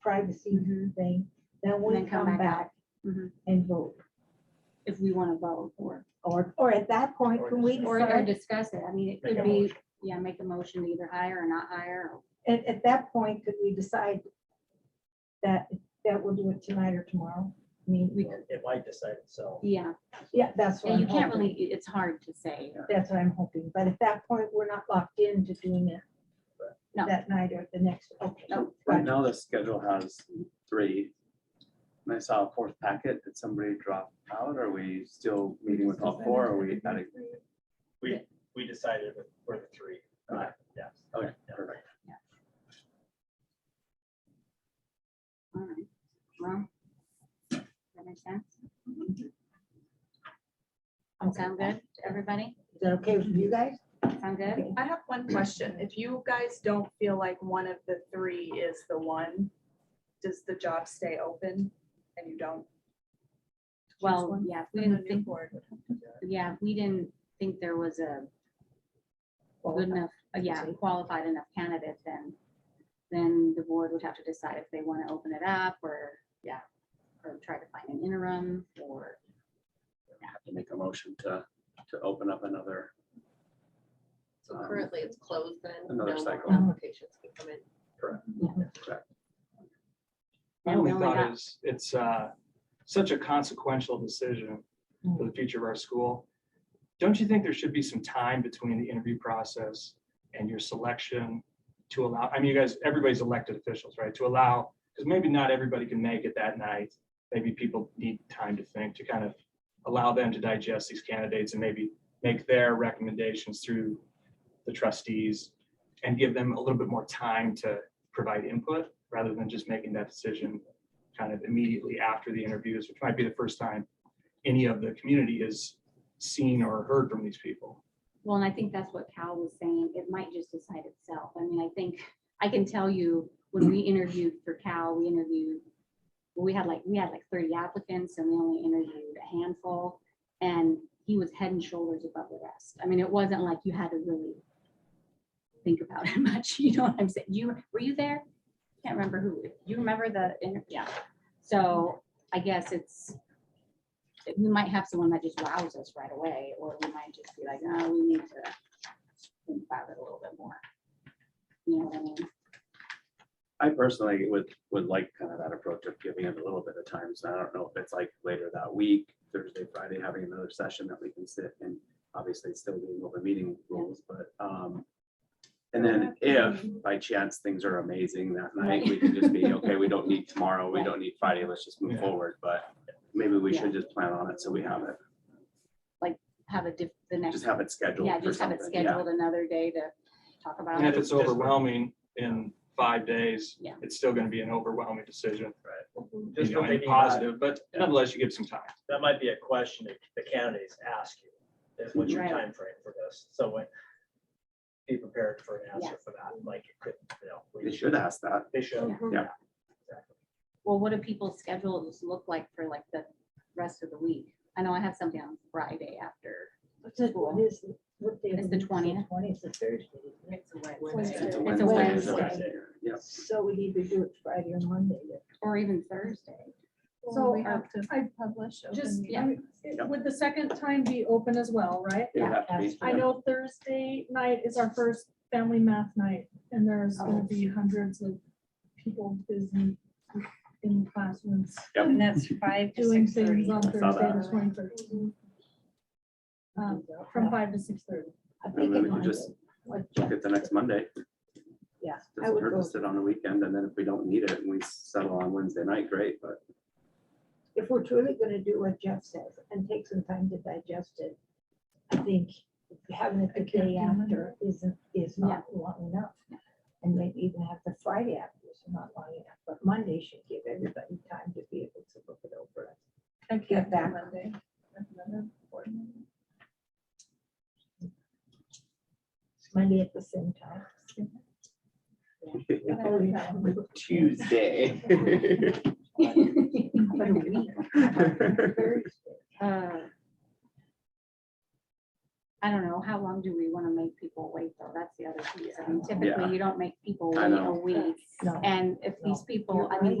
privacy Mm-hmm. thing, then And we then come come back back Mhm. and vote. if we want to vote or, Or, or at that point, Or when we decide. or or decide, discuss it. I mean, it Make a could be, motion. yeah, make a motion to either hire or not hire. or- at, at that point, could we decide that, that we'll do it tonight or tomorrow? I mean, we, It might decide itself. Yeah, yeah, that's what and I'm you can't really, hoping. it- it's hard to say. That's what I'm hoping. But at that point, we're not locked into doing it No. that night or the next, okay. No. Right. Right now, the schedule has three. And I saw a fourth packet. Did somebody drop out? Are we still meeting with all four? Are we at a? We, we decided with- for the three. Okay. Yeah. Okay, Yeah. perfect. All right. Well, that makes sense. Sound good to everybody? Is that okay with you guys? Sound good? I have one question. If you guys don't feel like one of the three is the one, does the job stay open and you don't? Well, yeah, if we didn't think, Yeah. yeah, if we didn't think there was a good enough, uh, yeah, Qualified. qualified enough candidate, then, then the board would have to decide if they want to open it up or, yeah, or try to find an interim or, Have to make a motion to, to open up another. So Um, currently it's closed then. another no more cycle. Applications can come in. My And we only only got- thought is, it's uh, such a consequential decision for the future of our school. Don't you think there should be some time between the interview process and your selection to allow, I mean, you guys, everybody's elected officials, right? To allow, because maybe not everybody can make it that night. Maybe people need time to think, to kind of allow them to digest these candidates and maybe make their recommendations through the trustees and give them a little bit more time to provide input rather than just making that decision kind of immediately after the interviews, which might be the first time any of the community is seen or heard from these people. well, and I think that's what Cal was saying, it might just decide itself. I mean, I think, I can tell you, when we interviewed for Cal, we interviewed, we had like, we had like thirty applicants and we only interviewed a handful. And he was head and shoulders above the rest. I mean, it wasn't like you had to really think about it much, you know what I'm saying? You, were you there? Can't remember who, you remember the, inter- yeah. So I guess it's, we might have someone that just wows us right away, or we might just be like, oh, we need to think about it a little bit more. You know what I mean? I personally would, would like kind of that approach of giving it a little bit of time. So I don't know if it's like later that week, Thursday, Friday, having another session that we can sit and obviously it's still being open meeting rules, but, um, and then if by chance things are amazing that night, we can just be, okay, we don't need tomorrow, we don't need Friday, let's just move Yeah. forward, but maybe we should just plan on it so we have it, Have a diff, the next, just have it scheduled yeah, for just have it something. Yeah, scheduled another day to talk about And if it. it's overwhelming in five days, Yeah. it's still going to be an overwhelming decision. Just You know, for and thinking about it, Positive, but nonetheless, you give some time. that might be a question that the candidates ask you, is what's your Right. time frame for this? So when, be prepared for an answer Yes. for that, like, it could, you know. we- they should ask that. They should. Yeah. Exactly. Well, what do people's schedules look like for like the rest of the week? I know I have something on Friday after. What's it- what is it? What day of It's the week is it? 20th. Twentieth, the Thursday. isn't it? It's a It's a Wednesday. is Wednesday. okay. Yeah. So we either do it Friday or Monday. then. Or even Thursday. So uh, we have I publish. open Just- meeting. uh, yeah. Yeah. Would the second time be open as well, right? It would have to be- that's I know Thursday night is our first family math night and there's gonna Oh. be hundreds of people busy in classrooms Yep. And that's five to doing six things thirty. on Thursday saw that. the twenty-third. Um, from five to six thirty. I'm And then we thinking could on just it. What- look at the next Monday. Yeah, I Doesn't would hurt go, to sit on the weekend and then if we don't need it and we settle on Wednesday night, great, but if we're truly gonna do what Jeff says and take some time to digest it, I think having it the day after isn't, is not long enough. And maybe even have the Friday after is not long enough, but Monday should give everybody time to be able to look it over. I Get back. Monday. That's another board meeting. Monday at the same time. But I would have- Tuesday. But a week. Thursday. Uh, I don't know, how long do we want to make people wait though? That's the other piece. I mean, typically you don't make people I wait a know. week. No. And if these people, You're I mean, we right.